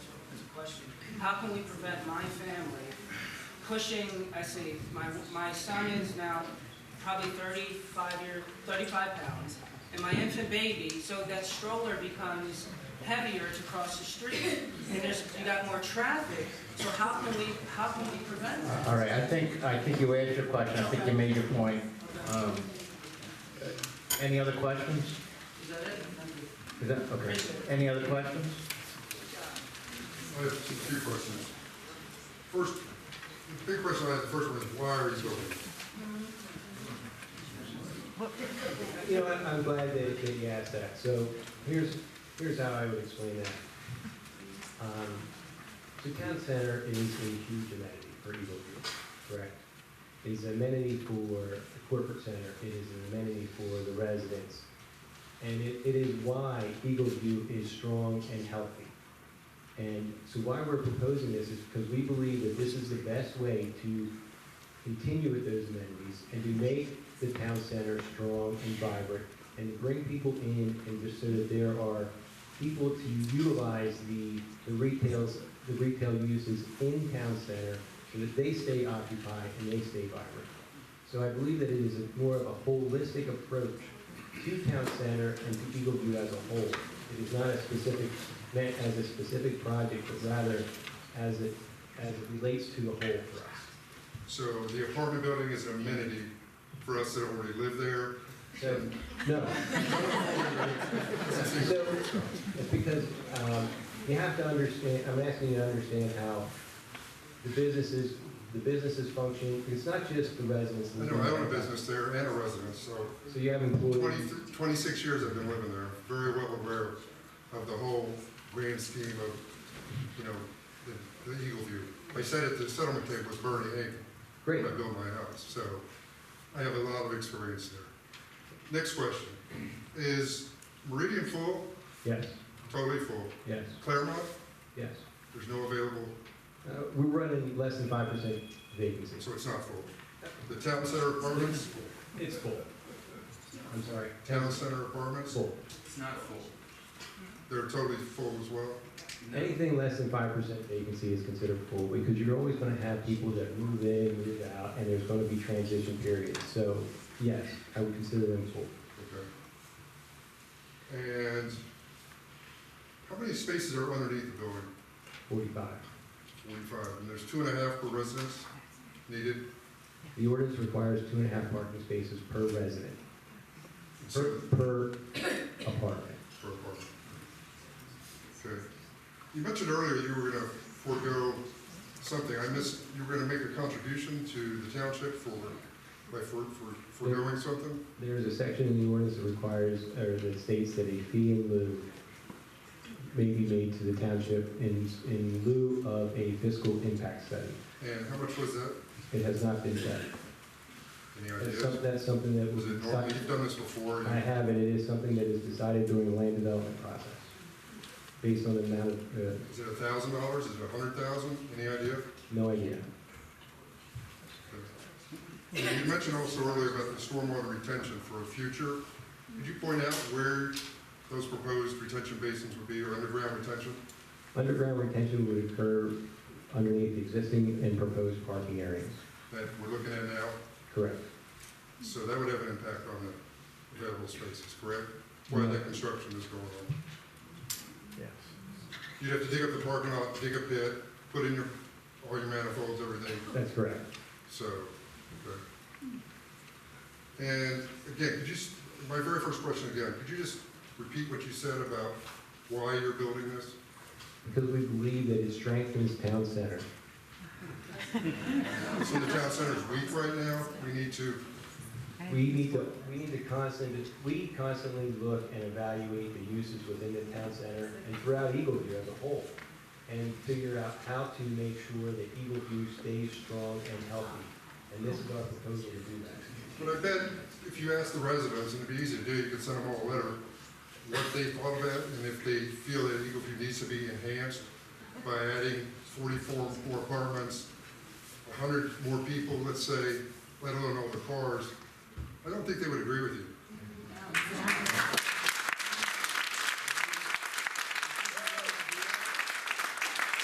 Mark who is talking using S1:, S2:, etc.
S1: question. How can we prevent my family pushing, I see, my, my son is now probably thirty-five year, thirty-five pounds, and my infant baby, so that stroller becomes heavier to cross the street, and there's, you got more traffic, so how can we, how can we prevent that?
S2: All right, I think, I think you answered your question, I think you made your point. Um, uh, Any other questions?
S1: Is that it?
S2: Is that, okay, any other questions?
S3: I have two- three questions. First, the big question I have, the first one is, why are you building? it?
S4: You know, I'm, I'm glad that, that you asked that. So here's, here's how I would explain that. Um, so town center is a huge amenity for Eagle View, correct? It's an amenity for the corporate center, it is an amenity for the residents. And it, it is why Eagle View is strong and healthy. And so why we're proposing this is because we believe that this is the best way to continue with those amenities and to make the town center strong and vibrant and to bring people in and just so that there are people to utilize the, the retails, the retail uses in town center so that they stay occupied and they stay vibrant. So I believe that it is a- more of a holistic approach to town center and to Eagle View as a whole. It is not a specific, meant as a specific project, but rather as it, as it relates to the whole for us.
S3: So the apartment building is an amenity for us that already live there.
S4: So, no, so, it's because, um, you have to understand, I'm asking you to understand how the businesses, the businesses function, it's not just the residents.
S3: I know, I own a business there and a residence, so
S4: So you have
S3: 20
S4: employees,
S3: 26 years I've been living there, very well aware of the whole grand scheme of, you know, the- the Eagle View. I sat at the settlement table with Bernie Hagan.
S4: great,
S3: when I built my house, so I have a lot of experience there. Next question, is Meridian full?
S4: yes,
S3: Totally full.
S4: yes,
S3: Claremont,
S4: yes.
S3: there's no available,
S4: Uh, we're running less than five percent vacancy.
S3: so it's not full. The town center apartments,
S4: It's full. I'm sorry.
S3: town center apartments,
S4: Full.
S5: It's not full.
S3: they're totally full as well.
S4: Anything less than five percent vacancy is considered full, because you're always gonna have people that move in, move out, and there's gonna be transition periods, so, yes, I would consider them full.
S3: Okay. And how many spaces are underneath the building?
S4: Forty-five.
S3: Forty-five, and there's two and a half per residence needed.
S4: The ordinance requires two and a half parking spaces per resident,
S3: And
S4: per,
S3: so-
S4: per apartment.
S3: for a park. Okay. You mentioned earlier you were gonna forego something, I missed, you were gonna make a contribution to the township for, by for, for, foregoing something?
S4: There's a section in the ordinance that requires, or that states that a fee in lieu may be made to the township in, in lieu of a fiscal impact study.
S3: And how much was that?
S4: It has not been done.
S3: Any
S4: That's
S3: ideas?
S4: some- that's something that
S3: Was
S4: was
S3: it normal,
S4: decided.
S3: you've done this before,
S4: I have, and it is something that is decided during the land development process, based on the amount of, uh,
S3: is it a thousand dollars, is it a hundred thousand, any idea?
S4: no idea.
S3: And You mentioned also earlier about the stormwater retention for a future, could you point out where those proposed retention basins would be, or underground retention?
S4: Underground retention would occur underneath the existing and proposed parking areas,
S3: that we're looking at now?
S4: correct?
S3: So that would have an impact on the available spaces, correct? Where that construction is going on.
S4: Yes.
S3: You'd have to dig up the parking lot, dig a pit, put in your, all your manifolds, everything,
S4: That's correct.
S3: so, okay. And again, could you, s- my very first question again, could you just repeat what you said about why you're building this?
S4: Because we believe that it strengthens town center.
S3: So the town center is weak right now, we need to,
S4: We need to, we need to constantly, we constantly look and evaluate the uses within the town center and throughout Eagle View as a whole, and figure out how to make sure that Eagle View stays strong and healthy. And this is our proposal to do that.
S3: but I bet if you ask the residents, and it'd be easy to do, you could send them all a letter, what they thought of it, and if they feel that Eagle View needs to be enhanced by adding forty-four more apartments, hundred more people, let's say, let alone all the cars, I don't think they would agree with you.